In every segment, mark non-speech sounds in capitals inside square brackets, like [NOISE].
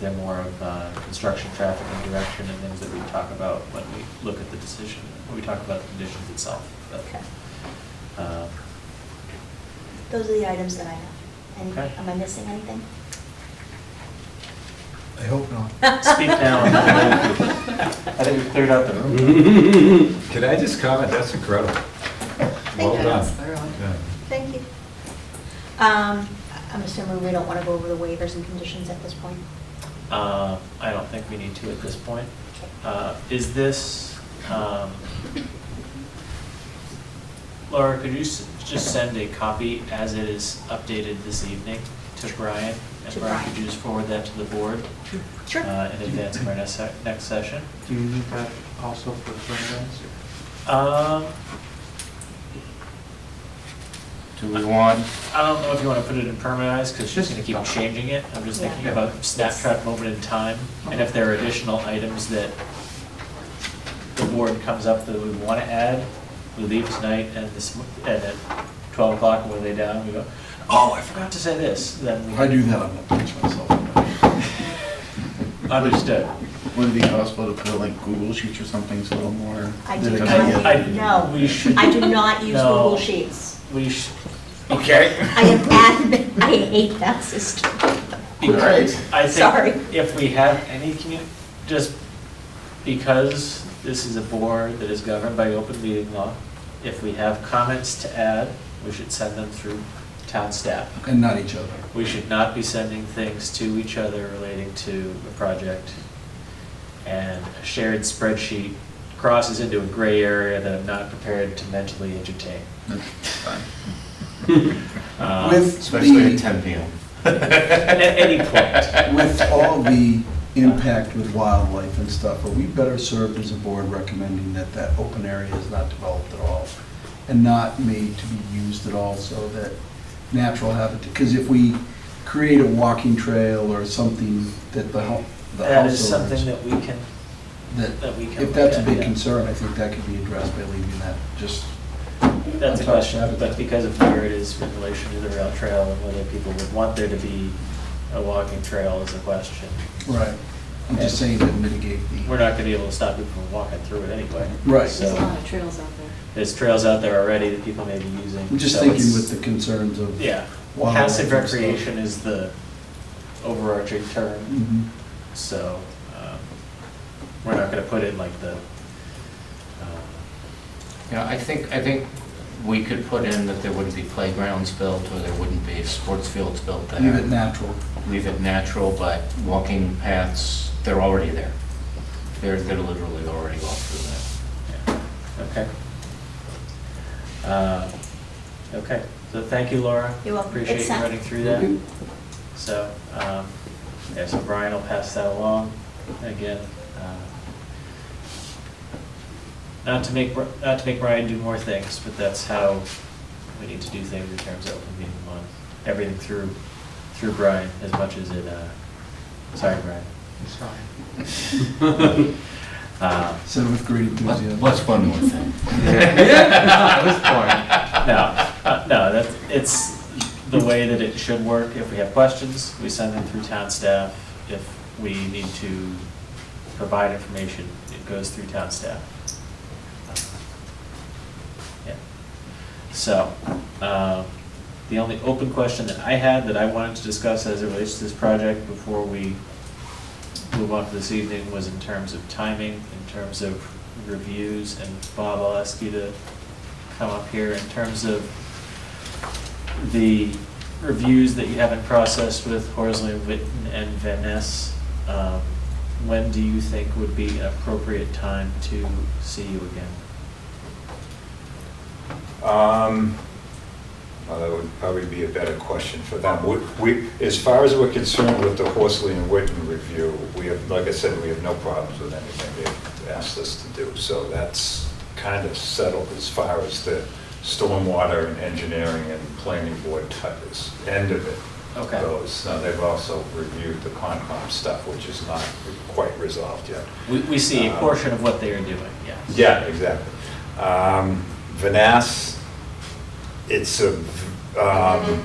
they're more of uh, construction, traffic, and direction, and things that we talk about when we look at the decision, when we talk about the conditions itself. But, Okay. um, Those are the items that I have. Any- Okay. Am I missing anything? I hope not. Speak now. [LAUGHS] I think we cleared out the room. Could I just comment? That's incredible. Thank Well you. done. Thorough. Yeah. Thank you. Um, I'm assuming we don't want to go over the waivers and conditions at this point? Uh, I don't think we need to at this point. Uh, Is this, um, Laura, could you s- just send a copy as it is updated this evening to Brian? To And Brian, could Brian. you just forward that to the board? Sure. uh, In advance of our next se- next session? Do you need that also for the sunrise? Um, Do we want, I don't know if you want to put it in permanentized, because she's Just- going to keep changing it. I'm just Yeah. thinking about snapshot moment in time, and if there are additional items that the board comes up that we want to add, we leave tonight and this, and at 12 o'clock when we lay down, we go, oh, I forgot to say this, then I we do that, I'm gonna pinch myself. understood. Would it be possible to put like Google Sheets or something so a little more? I do I- not, I- no. [LAUGHS] We should, I do not use No. Google Sheets. we should, Okay. I am [LAUGHS] adamant, I hate that system. Alright. I Sorry. think if we have any commu, just because this is a board that is governed by open meeting law, if we have comments to add, we should send them through town staff. And not each other. We should not be sending things to each other relating to the project. And a shared spreadsheet crosses into a gray area that I'm not prepared to mentally [LAUGHS] entertain. That's fine. Um, With especially at the, 10 PM? [LAUGHS] At any point, [LAUGHS] with all the impact with wildlife and stuff, are we better served as a board recommending that that open area is not developed at all? And not made to be used at all so that natural habitat, because if we create a walking trail or something that the hou- the that is house owners. something that we can, that we can If that's a look at, big yeah. concern, I think that could be addressed by leaving that just That's a Top question, rabbit. but because of where it is in relation to the rail trail and whether people would want there to be a walking trail is a question. Right. I'm just saying to mitigate We're the, not gonna be able to stop people from walking through it anyway. Right. There's a lot So, of trails out there. there's trails out there already that people may be using. I'm just so thinking it's- with the concerns of. Yeah, wildlife passive and stuff. recreation is the overarching term, Mhm. so, um, we're not gonna put in like the, um, Yeah, I think, I think we could put in that there wouldn't be playgrounds built, or there wouldn't be sports fields built there. Leave it natural. Leave it natural, but walking paths, they're already there. They're, they're literally already walked through there. Okay. Uh, Okay, so thank you, Laura. You're welcome. Appreciate It's you set. running through that. So, um, yeah, so Brian will pass that along again. uh, Not to make, Bri- not to make Brian do more things, but that's how we need to do things in terms of open meeting law. Everything through, through Brian as much as it, uh, sorry, Brian. It's fine. Uh, Said with great What's- enthusiasm. What's one [LAUGHS] more thing? [LAUGHS] No, uh, no, that's, it's the way that it should work. If we have questions, we send them through town staff. If we need to provide information, it goes through town staff. Yeah. So, um, the only open question that I had that I wanted to discuss as it relates to this project before we move on to this evening was in terms of timing, in terms of reviews, and Bob, I'll ask you to come up here in terms of the reviews that you have in process with Horsley, Witten, and Van Ness. um, When do you think would be an appropriate time to see you again? Um, Well, that would probably be a better question for them. We- We, as far as we're concerned with the Horsley and Witten review, we have, like I said, we have no problems with anything they've asked us to do. So that's kind of settled as far as the stormwater and engineering and planning board type is, end of it. Okay. goes. Now, they've also reviewed the Concom stuff, which is not quite resolved yet. We, we see a Um, portion of what they are doing, yes. Yeah, exactly. Um, Vanass, it's a, um,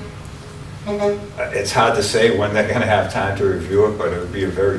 Uh, It's hard to say when they're gonna have time to review it, but it would be a very